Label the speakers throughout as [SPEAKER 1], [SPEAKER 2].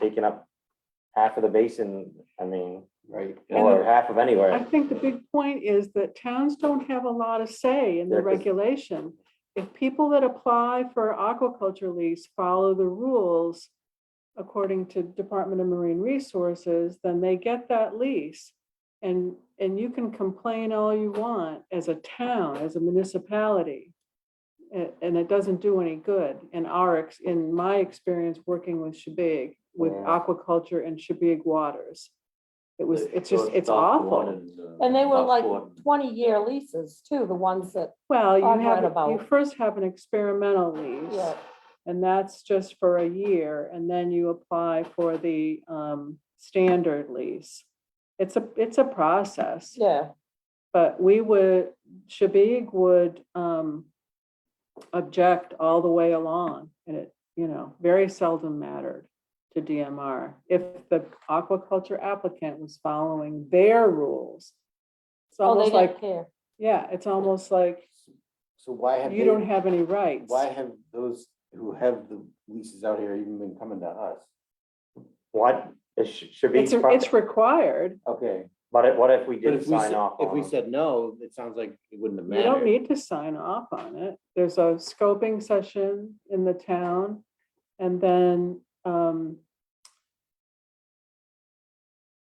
[SPEAKER 1] taking up half of the basin, I mean,
[SPEAKER 2] right?
[SPEAKER 1] or half of
[SPEAKER 3] I
[SPEAKER 1] anywhere.
[SPEAKER 3] think the big point is that towns don't have a lot of say in
[SPEAKER 1] Yeah,
[SPEAKER 3] the
[SPEAKER 1] 'cause-
[SPEAKER 3] regulation. If people that apply for aquaculture lease follow the rules according to Department of Marine Resources, then they get that lease. And, and you can complain all you want as a town, as a municipality. a- And it doesn't do any good. In our, ex- in my experience working with Shabig, with
[SPEAKER 1] Yeah.
[SPEAKER 3] aquaculture and Shabig waters. It was, it's just,
[SPEAKER 4] Both
[SPEAKER 3] it's
[SPEAKER 4] Southport
[SPEAKER 3] awful.
[SPEAKER 4] and, uh,
[SPEAKER 5] And they were like
[SPEAKER 4] Buckport and-
[SPEAKER 5] twenty-year leases too, the ones that,
[SPEAKER 3] Well, you
[SPEAKER 5] I've
[SPEAKER 3] have,
[SPEAKER 5] read
[SPEAKER 3] a- you
[SPEAKER 5] about.
[SPEAKER 3] first have an experimental lease,
[SPEAKER 5] yeah,
[SPEAKER 3] and that's just for a year, and then you apply for the um standard lease. It's a, it's a process,
[SPEAKER 5] yeah,
[SPEAKER 3] but we would, Shabig would um object all the way along, and it, you know, very seldom mattered to DMR if the aquaculture applicant was following their rules. It's
[SPEAKER 5] oh, they
[SPEAKER 3] almost like
[SPEAKER 5] didn't care.
[SPEAKER 3] yeah, it's almost like
[SPEAKER 2] So why have
[SPEAKER 3] you don't
[SPEAKER 2] they,
[SPEAKER 3] have any rights.
[SPEAKER 2] why have those who have the leases out here even been coming to us?
[SPEAKER 1] What, it sh- should be,
[SPEAKER 3] It's, it's required.
[SPEAKER 2] Okay.
[SPEAKER 1] but if- what if we
[SPEAKER 4] But
[SPEAKER 1] didn't
[SPEAKER 4] if we,
[SPEAKER 1] sign
[SPEAKER 4] said-
[SPEAKER 1] off
[SPEAKER 4] if
[SPEAKER 1] on
[SPEAKER 4] we
[SPEAKER 1] them?
[SPEAKER 4] said no, it sounds like it wouldn't have
[SPEAKER 3] You don't
[SPEAKER 4] mattered.
[SPEAKER 3] need to sign off on it. There's a scoping session in the town and then, um,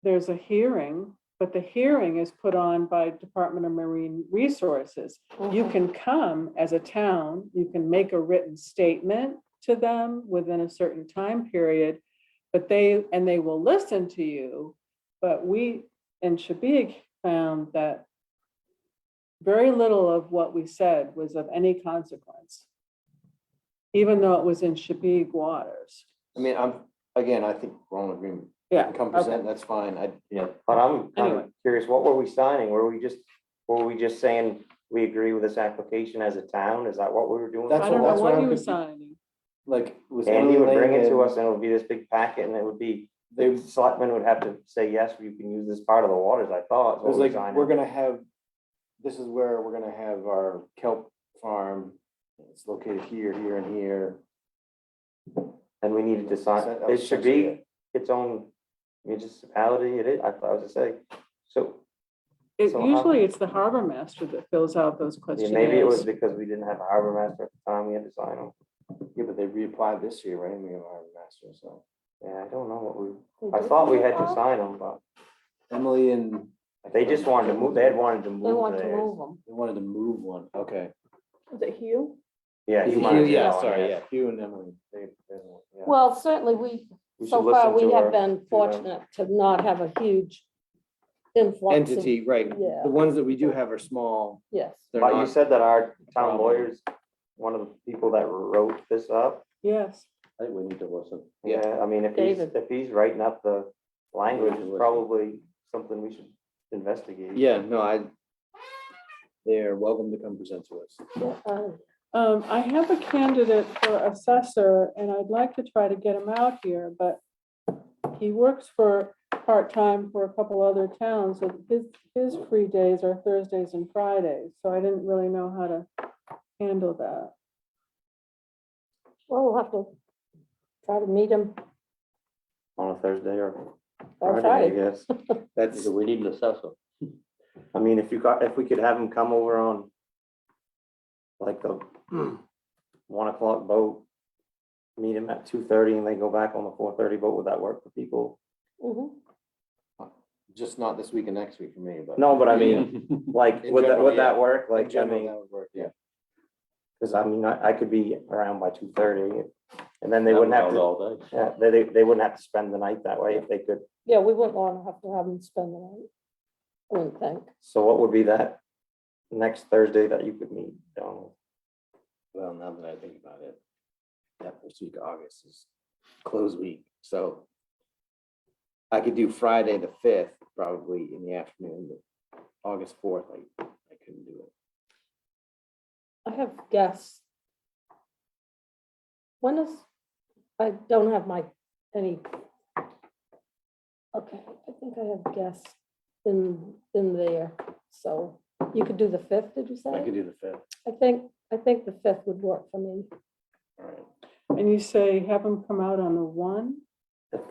[SPEAKER 3] there's a hearing, but the hearing is put on by Department of Marine Resources. You
[SPEAKER 5] Mhm.
[SPEAKER 3] can come as a town, you can make a written statement to them within a certain time period. But they, and they will listen to you, but we in Shabik found that very little of what we said was of any consequence. Even though it was in Shabik waters.
[SPEAKER 2] I mean, I'm, again, I think we're all in agreement. You
[SPEAKER 3] Yeah,
[SPEAKER 2] can Come present, that's fine. I,
[SPEAKER 1] Yeah, but I'm kind
[SPEAKER 3] Anyway.
[SPEAKER 1] of curious, what were we signing? Were we just, were we just saying we agree with this application as a town? Is that what we were doing?
[SPEAKER 2] That's
[SPEAKER 3] I
[SPEAKER 2] what-
[SPEAKER 3] don't know
[SPEAKER 2] that's what
[SPEAKER 3] what
[SPEAKER 2] I'm
[SPEAKER 3] he was
[SPEAKER 2] confused.
[SPEAKER 3] signing.
[SPEAKER 2] like, was.
[SPEAKER 1] And he
[SPEAKER 2] Emily
[SPEAKER 1] would bring
[SPEAKER 2] Lang
[SPEAKER 1] it to
[SPEAKER 2] and
[SPEAKER 1] us and it would be this big packet and it would be,
[SPEAKER 2] They,
[SPEAKER 1] the selectmen would have to say, yes, you can use this part of the waters, I thought. is
[SPEAKER 2] It
[SPEAKER 1] what
[SPEAKER 2] was
[SPEAKER 1] we
[SPEAKER 2] like,
[SPEAKER 1] signed.
[SPEAKER 2] we're gonna have, this is where we're gonna have our kelp farm. It's located here, here and here.
[SPEAKER 1] And we needed to sign,
[SPEAKER 2] That
[SPEAKER 1] Uh, it
[SPEAKER 2] was
[SPEAKER 1] should
[SPEAKER 2] essentially
[SPEAKER 1] be
[SPEAKER 2] it.
[SPEAKER 1] its own municipality, it is, I thought, I was gonna say, so
[SPEAKER 3] It,
[SPEAKER 1] So how-
[SPEAKER 3] usually it's the harbor master that fills out those
[SPEAKER 1] yeah, maybe it was
[SPEAKER 3] questionnaires.
[SPEAKER 1] because we didn't have a harbor master at the time, we had to sign them.
[SPEAKER 2] Yeah, but they reapplied this year, right? We have our master, so.
[SPEAKER 1] Yeah, I don't know what we,
[SPEAKER 5] They
[SPEAKER 1] I
[SPEAKER 5] did
[SPEAKER 1] thought we
[SPEAKER 5] care.
[SPEAKER 1] had to sign them, but
[SPEAKER 2] Emily and.
[SPEAKER 1] they just wanted to move, they had wanted to
[SPEAKER 5] They
[SPEAKER 1] move
[SPEAKER 5] want to move
[SPEAKER 1] theirs.
[SPEAKER 5] them.
[SPEAKER 2] They wanted to move one, okay.
[SPEAKER 3] Was it Hugh?
[SPEAKER 1] Yeah.
[SPEAKER 2] Hugh-
[SPEAKER 1] you might have been
[SPEAKER 4] yeah,
[SPEAKER 1] on,
[SPEAKER 4] sorry,
[SPEAKER 1] yes.
[SPEAKER 4] yeah.
[SPEAKER 2] Hugh and Emily, they, they don't- yeah.
[SPEAKER 5] Well, certainly we,
[SPEAKER 1] We
[SPEAKER 5] so
[SPEAKER 1] should
[SPEAKER 5] far,
[SPEAKER 1] listen
[SPEAKER 5] we
[SPEAKER 1] to
[SPEAKER 5] have
[SPEAKER 1] her.
[SPEAKER 5] been fortunate to not have a huge influx of,
[SPEAKER 4] Entity, right.
[SPEAKER 5] Yeah.
[SPEAKER 4] The ones that we do have are small.
[SPEAKER 5] yes.
[SPEAKER 4] They're
[SPEAKER 1] But you
[SPEAKER 4] not-
[SPEAKER 1] said that our
[SPEAKER 4] Problem.
[SPEAKER 1] town lawyer's, one of the people that wrote this up.
[SPEAKER 3] Yes,
[SPEAKER 2] I think we need to listen.
[SPEAKER 4] Yeah.
[SPEAKER 1] Yeah, I mean, if he's,
[SPEAKER 5] David.
[SPEAKER 1] if he's writing up the language,
[SPEAKER 2] should
[SPEAKER 1] it's
[SPEAKER 2] listen.
[SPEAKER 1] probably something we should investigate.
[SPEAKER 4] Yeah, no, I, they're welcome to come present to us.
[SPEAKER 5] Uh,
[SPEAKER 3] um, I have a candidate for assessor and I'd like to try to get him out here, but he works for, part-time for a couple other towns, so his, his free days are Thursdays and Fridays, so I didn't really know how to handle that.
[SPEAKER 5] Well, we'll have to try to meet him
[SPEAKER 1] On a Thursday or
[SPEAKER 5] by
[SPEAKER 1] Friday, I
[SPEAKER 5] Friday.
[SPEAKER 1] guess.
[SPEAKER 4] That's,
[SPEAKER 2] we need an assessor.
[SPEAKER 1] I mean, if you got, if we could have him come over on like the one o'clock boat, meet him at two thirty and then go back on the four thirty boat, would that work for people?
[SPEAKER 3] Mm-hmm.
[SPEAKER 5] Mhm.
[SPEAKER 2] Just not this week and next week for me, but.
[SPEAKER 1] No, but I mean, like,
[SPEAKER 2] In
[SPEAKER 1] would that,
[SPEAKER 2] general,
[SPEAKER 1] would that
[SPEAKER 2] yeah.
[SPEAKER 1] work?
[SPEAKER 2] In
[SPEAKER 1] Like, I
[SPEAKER 2] general,
[SPEAKER 1] mean,
[SPEAKER 2] that would work, yeah.
[SPEAKER 1] cause I mean, I, I could be around by two thirty and then they wouldn't have to,
[SPEAKER 2] all day.
[SPEAKER 1] yeah, they, they, they wouldn't have to spend the night that way if they could.
[SPEAKER 5] Yeah, we wouldn't want to have to have him spend the night, I wouldn't think.
[SPEAKER 1] So what would be that next Thursday that you could meet? Donald?
[SPEAKER 4] well, now that I think about it, that first week of August is close week, so I could do Friday the fifth, probably in the afternoon, but August fourth, I, I couldn't do it.
[SPEAKER 5] I have guests. When is, I don't have my, any. Okay, I think I have guests in, in there, so you could do the fifth, did you say?
[SPEAKER 4] I could do the fifth,
[SPEAKER 5] I think, I think the fifth would work for me.
[SPEAKER 4] all right.
[SPEAKER 3] And you say have him come out on the one?